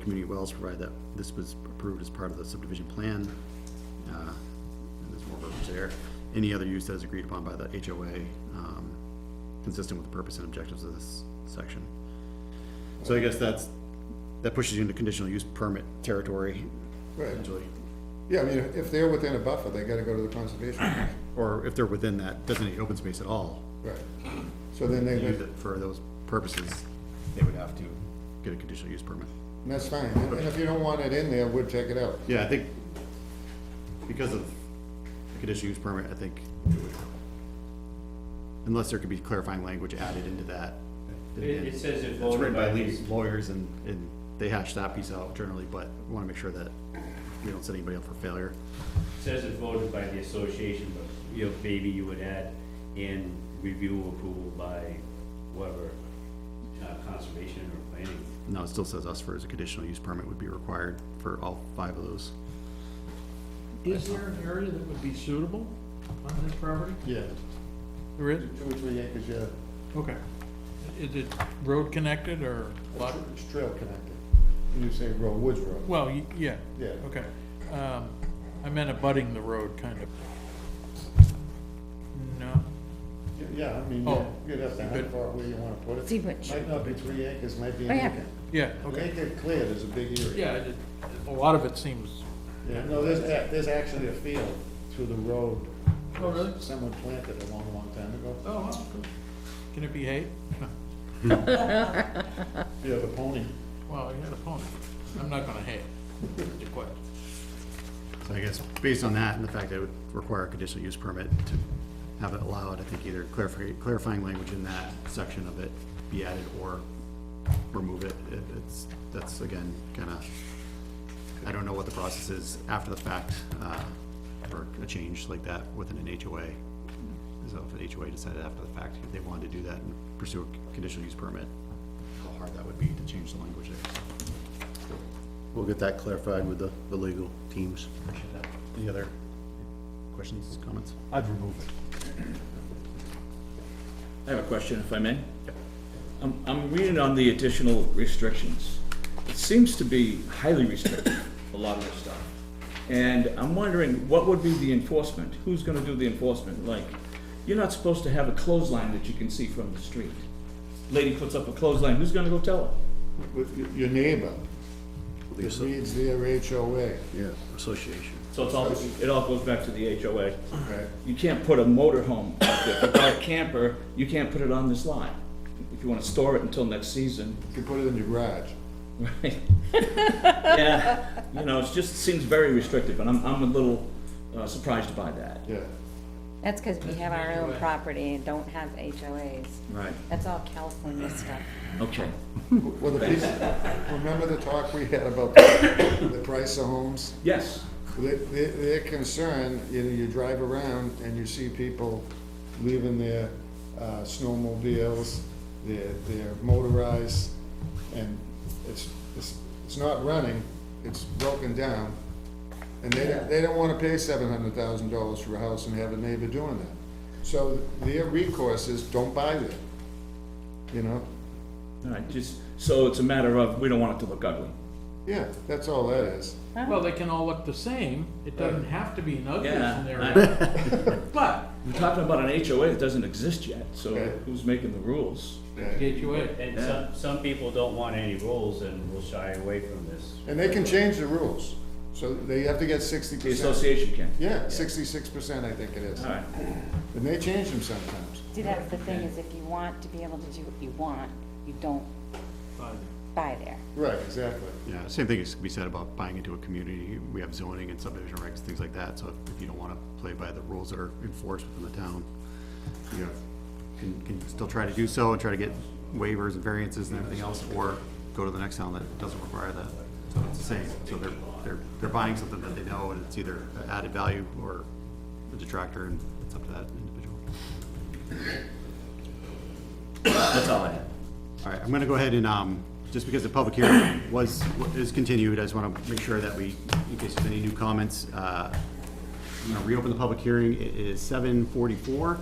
community wells, provided that this was approved as part of the subdivision plan. Uh, And there's more verbiage there. Any other use that is agreed upon by the HOA, um, consistent with the purpose and objectives of this section. So I guess that's, that pushes you into conditional use permit territory, Right. potentially. Yeah, I mean, if they're within a buffer, they gotta go to the conservation commission. Or if they're within that designated open space at all, Right. So then they, use and it for those purposes, they would have to get a conditional use permit. that's fine. And and if you don't want it in there, we'll take it out. Yeah, I think because of the conditional use permit, I think it would, unless there could be clarifying language added into that. It, it says if It's voted written by by legal these, lawyers and, and they hash that piece out generally, but we want to make sure that we don't set anybody up for failure. it says if voted by the association, but, you know, maybe you would add in review approval by whoever, uh, conservation or planning. No, it still says us for as a conditional use permit would be required for all five of those. Is there an area that would be suitable on this property? Yeah. There is? Two or three acres, yeah. Okay. Is it road connected or lot? It's trail connected. And you say road, woods road. Well, y- yeah. Yeah. Okay. Um, I meant abutting the road, kind of. No? Yeah, I mean, Oh. you'd have to hunt for where you wanna put it. See which, Might not be three acres, might be Oh, an yeah. acre. Yeah, An acre cleared is a big area. yeah, I did- a lot of it seems, Yeah, no, there's, a- there's actually a field through the road. Oh, really? Someone planted a long, long time ago. oh, wow, cool. Can it be hay? Yeah, the pony. Well, you had a pony. I'm not gonna hay it. It's a question. So I guess based on that and the fact that it would require a conditional use permit to have it allowed, I think either clarify, clarifying language in that section of it be added or remove it. It- It's, that's again, kind of, I don't know what the process is after the fact, uh, for a change like that within an HOA. So if an HOA decided after the fact if they wanted to do that and pursue a conditional use permit, how hard that would be to change the language there. We'll get that clarified with the, the legal teams. Any other questions, comments? I've removed it. I have a question, if I may. I'm, I'm reading on the additional restrictions. It seems to be highly restrictive, a lot of this stuff. And I'm wondering, what would be the enforcement? Who's gonna do the enforcement? Like, you're not supposed to have a clothesline that you can see from the street. Lady puts up a clothesline, who's gonna go tell her? With y- your neighbor, The that asso- reads their HOA, Yeah, association. So it's all, it all goes back to the HOA. okay? You can't put a motorhome up there, If you buy a camper, you can't put it on this line. If you wanna store it until next season, You can put it in your garage. Right. Yeah, you know, it just seems very restrictive, and I'm, I'm a little uh, surprised by that. Yeah, that's because we have our own property and don't have HOAs. Right. That's all California stuff. Okay. well, the piece, remember the talk we had about the the price of homes? Yes, Their, their their concern, you know, you drive around and you see people leaving their, uh, snowmobiles, their, their motorized, and it's, it's, it's not running, it's broken down. And they, don't- they don't wanna pay seven hundred thousand dollars for a house and have a neighbor doing that. So their recourse is, don't buy there, you know? all right, just, so it's a matter of, we don't want it to look ugly. Yeah, that's all that is. Well, they can all look the same. It doesn't have to be an ugly Yeah, scenario. But We're talking about an HOA that doesn't exist yet, so Okay. who's making the rules? Yeah. Get you in. And some, some people don't want any rules and will shy away from this. And they can change the rules, so they have to get sixty The percent. association can. Yeah, sixty-six percent, I think it is. All right, And they change them sometimes. See, that's the thing, is if you want to be able to do what you want, you don't buy there. Right, exactly. Yeah, same thing is to be said about buying into a community. We have zoning and subdivision regs, things like that, so if you don't wanna play by the rules that are enforced within the town, you know, can, can still try to do so and try to get waivers and variances and everything else, or go to the next town that doesn't require that. So it's the same, so they're, they're, they're buying something that they know, and it's either added value or a detractor, and it's up to that individual. that's all I have. All right, I'm gonna go ahead and, um, just because the public hearing was, is continued, I just wanna make sure that we, in case there's any new comments, uh, I'm gonna reopen the public hearing. It is seven forty-four.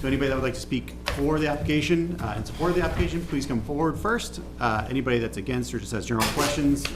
So anybody that would like to speak for the application, uh, in support of the application, please come forward first. Uh, anybody that's against or just has general questions